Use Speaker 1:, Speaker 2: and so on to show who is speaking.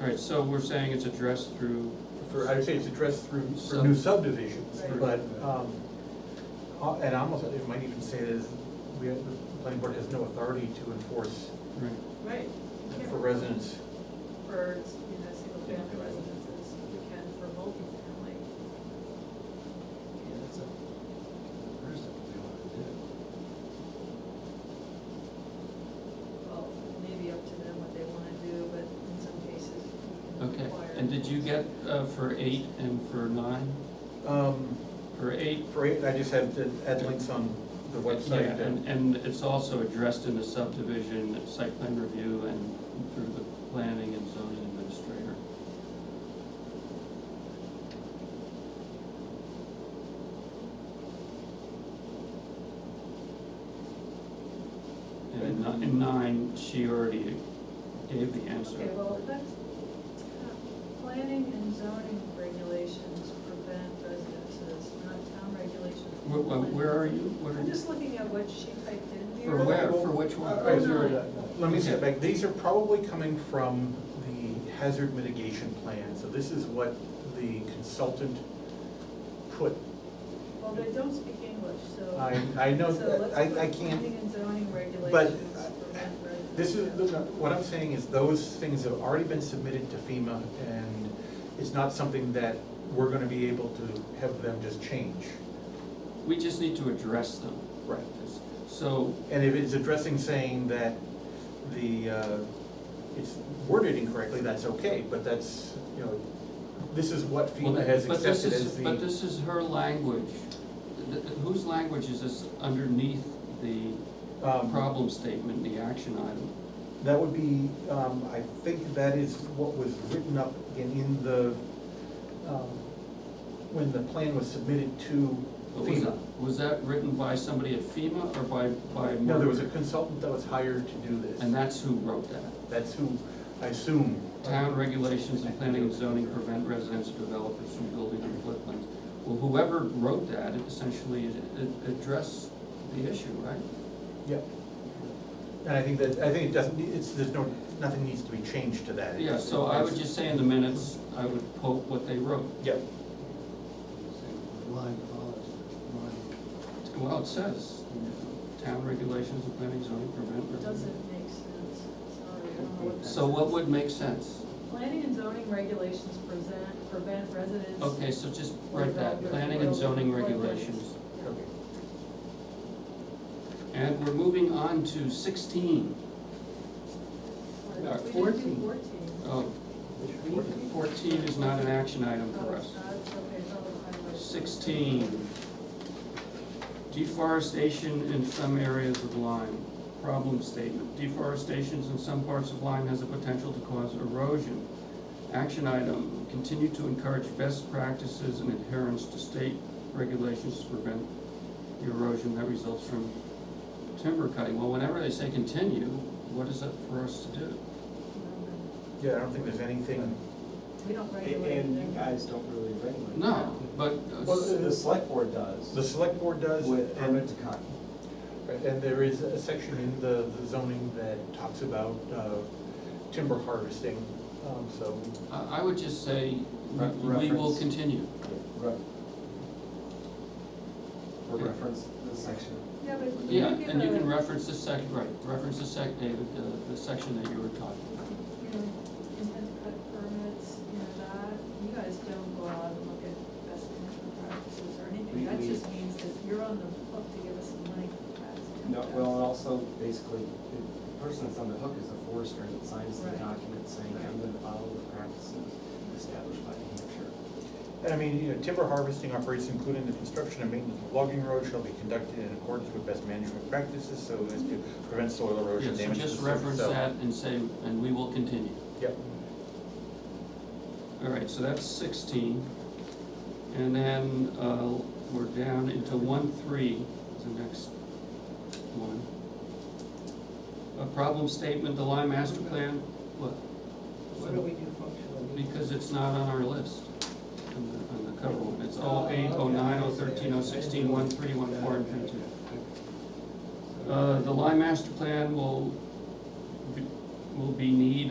Speaker 1: All right, so we're saying it's addressed through,
Speaker 2: for, I would say it's addressed through, for new subdivisions,
Speaker 3: Right.
Speaker 2: but, um, uh, and I almost, it might even say that is, we have, the planning board has no authority to enforce
Speaker 1: right,
Speaker 3: Right.
Speaker 2: for residents.
Speaker 3: For, you know, single family residences, we can for multifamily. Well, maybe up to them what they wanna do, but in some cases, we can
Speaker 1: okay.
Speaker 3: require.
Speaker 1: And did you get uh, for eight and for nine?
Speaker 2: Um,
Speaker 1: For eight,
Speaker 2: for, eight, I just had to add links on the
Speaker 1: yeah,
Speaker 2: website
Speaker 1: and,
Speaker 2: that,
Speaker 1: and it's also addressed in the subdivision, site plan review and through the planning and zoning administrator. And in ni- in nine, she already gave the answer.
Speaker 3: Okay, well, that's, uh, planning and zoning regulations prevent residences, not town regulations.
Speaker 1: Where, where are you? What are
Speaker 3: I'm
Speaker 1: you?
Speaker 3: just looking at what she typed in here.
Speaker 1: For where, for which one?
Speaker 3: Oh, no.
Speaker 2: let me step back, these are probably coming from the hazard mitigation plan, so this is what the consultant put.
Speaker 3: Well, they don't speak English, so.
Speaker 2: I, I know,
Speaker 3: So let's
Speaker 2: I,
Speaker 3: put
Speaker 2: I can't. uh,
Speaker 3: Planning and zoning regulations. prevent residences.
Speaker 2: This is, what I'm saying is those things have already been submitted to FEMA and it's not something that we're gonna be able to have them just change.
Speaker 1: We just need to address them.
Speaker 2: Right.
Speaker 1: So,
Speaker 2: And if it's addressing saying that the, uh, it's worded incorrectly, that's okay, but that's, you know, this is what
Speaker 1: well,
Speaker 2: FEMA has
Speaker 1: but this
Speaker 2: accepted as
Speaker 1: is, but
Speaker 2: the,
Speaker 1: this is her language. Th- th- Whose language is this underneath the
Speaker 2: um,
Speaker 1: problem statement, the action item?
Speaker 2: that would be, um, I think that is what was written up in, in the, um, when the plan was submitted to
Speaker 1: But was
Speaker 2: FEMA.
Speaker 1: that- Was that written by somebody at FEMA or by, by?
Speaker 2: No, there was a
Speaker 1: Merck?
Speaker 2: consultant that was hired to do this.
Speaker 1: And that's who wrote that?
Speaker 2: That's who, I assume.
Speaker 1: town regulations and planning and zoning prevent residential developers from building on floodplains. Well, whoever wrote that it essentially it- it addressed the issue, right?
Speaker 2: Yep. And I think that, I think it doesn't, need- it's, there's no, nothing needs to be changed to that.
Speaker 1: Yeah, so I would just say in the minutes, I would quote what they wrote.
Speaker 2: Yep,
Speaker 4: Line follows line.
Speaker 1: Well, it says, you know, town regulations and planning and zoning prevent.
Speaker 3: It
Speaker 1: residential-
Speaker 3: Doesn't make sense, sorry, I don't know what that
Speaker 1: So what
Speaker 3: says.
Speaker 1: would make sense?
Speaker 3: Planning and zoning regulations present, prevent residents.
Speaker 1: Okay, so just write that, planning and zoning regulations.
Speaker 2: okay.
Speaker 1: And we're moving on to sixteen.
Speaker 3: We
Speaker 1: Uh,
Speaker 3: didn't do
Speaker 1: 14.
Speaker 3: Fourteen.
Speaker 1: Oh, fourteen is not an action
Speaker 5: Uh,
Speaker 1: item
Speaker 3: Oh,
Speaker 1: for
Speaker 3: it's
Speaker 1: us.
Speaker 3: not, it's okay, it's all the highway.
Speaker 1: 16, deforestation in some areas of Lyme. Problem statement, deforestation in some parts of Lyme has the potential to cause erosion. Action item, continue to encourage best practices and adherence to state regulations to prevent the erosion that results from timber cutting. Well, whenever they say continue, what is that for us to do?
Speaker 2: Yeah, I don't think there's anything,
Speaker 3: We don't
Speaker 5: And
Speaker 3: regulate.
Speaker 5: and you
Speaker 3: them.
Speaker 5: guys don't really regulate.
Speaker 1: No, but,
Speaker 2: Well,
Speaker 5: The
Speaker 1: uh,
Speaker 5: the select board does.
Speaker 2: the select board does.
Speaker 5: With
Speaker 2: and-
Speaker 5: permit to cut.
Speaker 2: And there is a section in the the zoning that talks about uh, timber harvesting, um, so.
Speaker 1: I I would just say, we-
Speaker 5: Re-
Speaker 1: we will
Speaker 5: reference.
Speaker 1: continue.
Speaker 5: Re- Or reference the section.
Speaker 3: Yeah, but you
Speaker 1: Yeah,
Speaker 3: give
Speaker 1: and you
Speaker 3: a-
Speaker 1: can reference the sec, right, reference the sec, David, the, the section that you were talking about.
Speaker 3: you know, intent to cut permits, you know, that, you guys don't go out and look at best management practices or anything,
Speaker 5: We-
Speaker 3: that
Speaker 5: we-
Speaker 3: just means that you're on the hook to give us some money for that.
Speaker 5: No, well, and also basically, the person that's on the hook is the forester that signs the
Speaker 3: Right.
Speaker 5: document saying, I'm gonna follow the practices established by New Hampshire.
Speaker 2: And I mean, you know, timber harvesting operates including the construction and maintenance of logging roads shall be conducted in accordance with best management practices so as to prevent soil
Speaker 1: Yeah,
Speaker 2: erosion,
Speaker 1: so
Speaker 2: damage to the
Speaker 1: just
Speaker 2: soil.
Speaker 1: reference
Speaker 2: So-
Speaker 1: that and say, and we will continue.
Speaker 2: Yep.
Speaker 1: All right, so that's sixteen. And then, uh, we're down into one, three, is the next one. A problem statement, the Lime Master Plan, what?
Speaker 4: What do we do functionally?
Speaker 1: Because it's not on our list, on the, on the cover one. It's all eight, oh nine, oh thirteen, oh sixteen, one, three, one, four, and three, two. Uh, the Lime Master Plan will, be- will be need